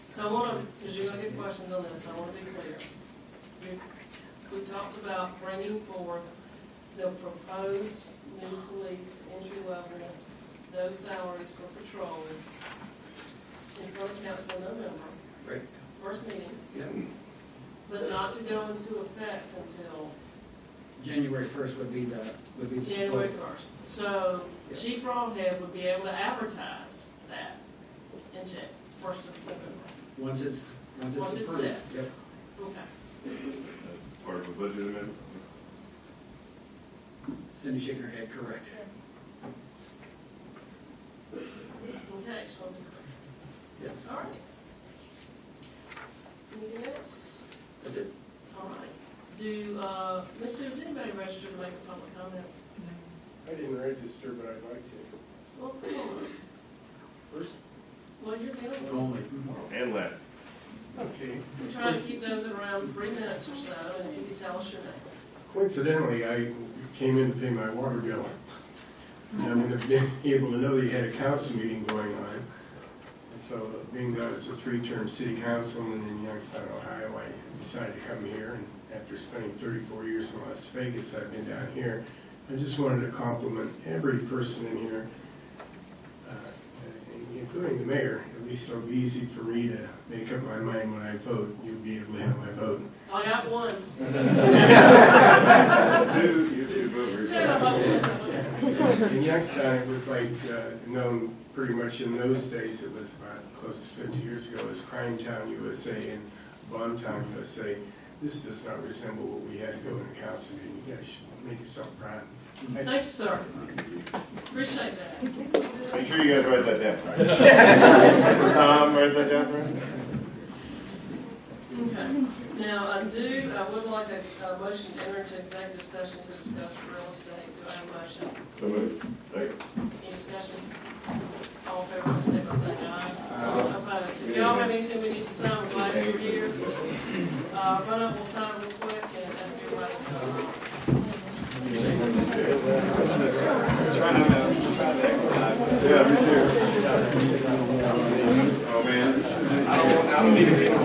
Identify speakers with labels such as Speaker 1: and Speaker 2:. Speaker 1: So I want to, because you're going to get questions on this, I want to be clear. We- We talked about bringing forward the proposed new police entry level, those salaries for patrol in front of council in November,
Speaker 2: Right,
Speaker 1: first meeting,
Speaker 2: yeah.
Speaker 1: but not to go into effect until
Speaker 2: January first would be the, would be. the
Speaker 1: January
Speaker 2: proposal.
Speaker 1: first. So Chief Rawhead would be able to advertise that in Jan, first of November.
Speaker 2: Once it's, once it's.
Speaker 1: Once it's
Speaker 2: approved.
Speaker 1: set.
Speaker 2: Yep.
Speaker 1: Okay.
Speaker 3: That's part of a budget amendment.
Speaker 2: Cindy shaking her head, correct.
Speaker 1: Okay, so I'll be
Speaker 2: Yeah.
Speaker 1: clear. All right. Anything else?
Speaker 2: That's it.
Speaker 1: All right. Do, uh, Ms. Sue, is anybody registered to make a public comment?
Speaker 4: I didn't register, but I'd like to.
Speaker 1: Well, come on.
Speaker 2: First,
Speaker 1: Well, you're dealing with,
Speaker 2: only.
Speaker 3: And last,
Speaker 4: Okay.
Speaker 1: we try to keep those at around three minutes or so, and if you could tell us your name.
Speaker 4: Coincidentally, I came in to pay my water bill. And I would have been able to know that you had a council meeting going on. And so being that it's a three-term city councilman in Youngstown, Ohio, I decided to come here. And after spending 34 years in Las Vegas, I've been down here. I just wanted to compliment every person in here, uh, including the mayor. At least it'll be easy for me to make up my mind when I vote. You'll be able to have my vote.
Speaker 1: I got one.
Speaker 3: two, you two vote.
Speaker 1: Two of them.
Speaker 4: In Youngstown, it was like, uh, known pretty much in those days, it was about close to 50 years ago, as Crime Town USA and Bomb Town USA. This does not resemble what we had to go in the council meeting. You guys should make yourself proud. I-
Speaker 1: Thank you, sir. Appreciate that.
Speaker 3: Make sure you guys write that down. Tom, write that down for us.
Speaker 1: Okay. Now, I do, I would like a, a motion to enter into executive session to discuss real estate. Do I have a motion?
Speaker 3: So moved. Second.
Speaker 1: Any discussion? All in favor, please say by saying aye. Aye. Opposed? If y'all have anything we need to sign, I'm glad you're here. Uh, run up, we'll sign real quick and ask everybody to.
Speaker 3: Yeah, me Oh, too.